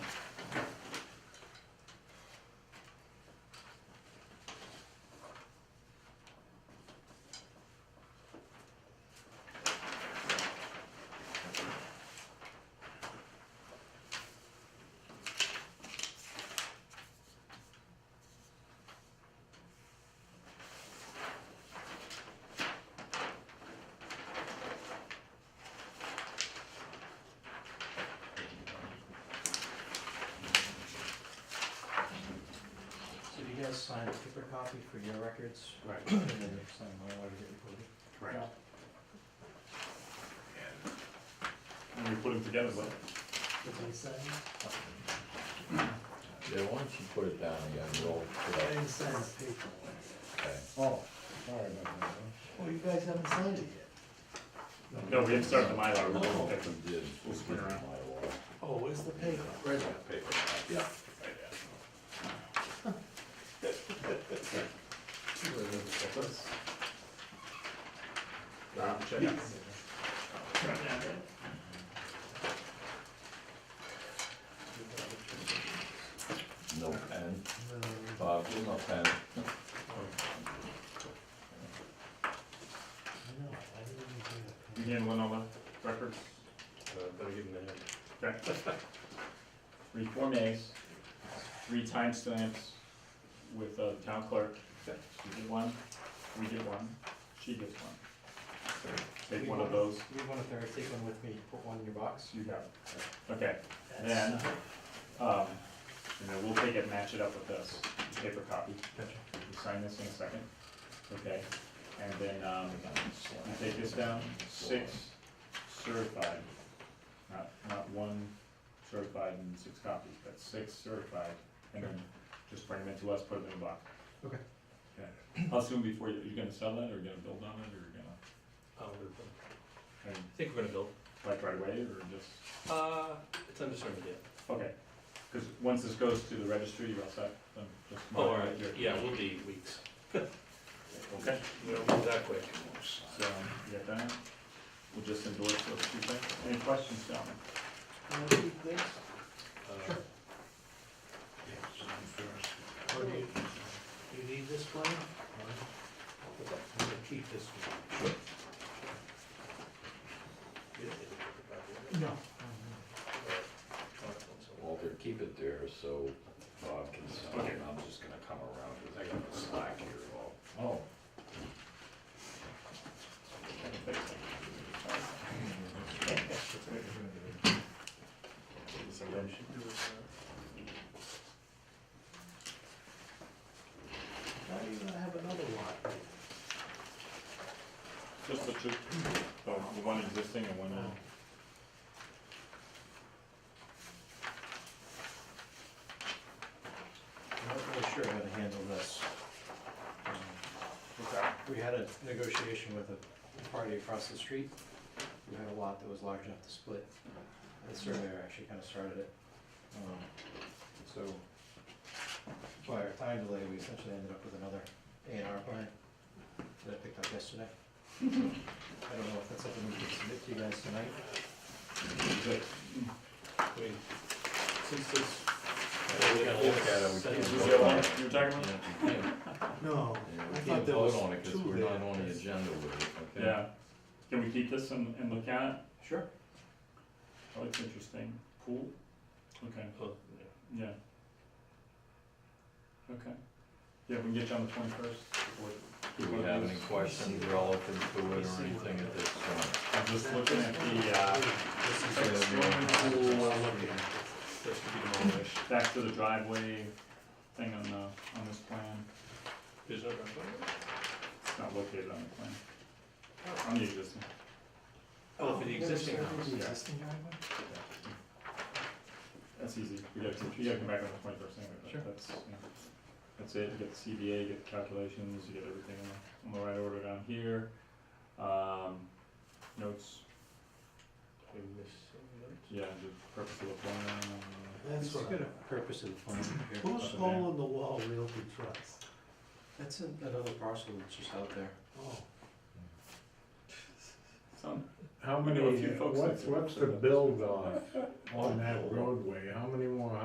guys sign a paper copy for your records, Right, and then you sign my letter that you recorded. right. Yeah. And we put them together, but Did they send? Yeah, why don't you put it down again, roll They it didn't send the paperwork. up, okay? Oh, sorry about that. Well, you guys haven't signed it yet. No, we didn't start the Mylar, No, we'll you pick them. did. We'll spin around. Oh, where's the paper? Where's that paper? Yeah. Um, check it. No pen, No. Bob, there's no pen. No, I didn't even get a You pen. handling all the records? Okay. Three Form As, three timestamps with uh, town clerk. She did one, we did one, she gets one. Take one of those, Leave one up there, take one with me, put one in your box. you got it. Okay, then, That's- um, and then we'll take it, match it up with this, paper copy. Gotcha. You sign this in a second, okay? And then, um, you take this down, six certified, not, not one certified and six copies, but six certified. And then just bring them in to us, put them in a box. Okay. Okay, how soon before, you- you're gonna sell it, or you're gonna build on it, or you're gonna, I I mean, think we're gonna build. like right away, or just, Uh, it's undetermined yet. okay. Cause once this goes to the registry, you're all set, then just. Oh, all mark it right, here. yeah, we'll be weeks. Okay. We don't move that quick. So, you got that? We'll just endorse those two things. Any questions, gentlemen? You wanna keep this? Uh, Or do you, you need this one? I'm gonna keep this one. You don't need to worry about it. No. Walter, keep it there so Bob can sign, Okay. and I'm just gonna come around, cause I got the slack here, all. Oh. Why do you gonna have another lot? Just the two, the the one existing and one, uh, I'm not really sure how to handle this. Um, what's that? We had a negotiation with a party across the street, who had a lot that was large enough to split. The surveyor actually kinda started it. Um, So, by our time delay, we essentially ended up with another A and R plan that I picked up yesterday. I don't know if that's something we can submit to you guys tonight. Good. I mean, since this. we gotta look at it, we Since can't this is Is this the other the one one, you were talking about? Yeah, No, we I can't thought there was vote on it, cause two we're there. not on the agenda with it, okay? Yeah. Can we keep this and, and look at it? Sure. Oh, it's interesting. Cool. Okay, Oh, yeah. yeah. Okay. Yeah, we can get you on the twenty-first. Do we have any questions relative to it or anything at this point? I'm just looking at the, uh, This is Okay, the we swimming pool, I'm looking at this to be demolished. back to the driveway thing on the, on this plan. There's no driveway? It's not located on the plan. On the existing. Oh, for the existing There's- house. there's the yeah. existing driveway? That's easy. We gotta, you gotta come back on the twenty-first anyway, but that's, yeah. That's it. You get the CBA, you get the calculations, you get everything in the, in the right order down here. Um, notes, We miss- yeah, the purpose of the plan. That's It's what I- got a purpose of the plan here. Who's hole in the wall Realty Trust? That's an- another parcel that's just out there. Oh, Some, How I know many, a few folks that what's, do. what's the build off on that roadway? How many more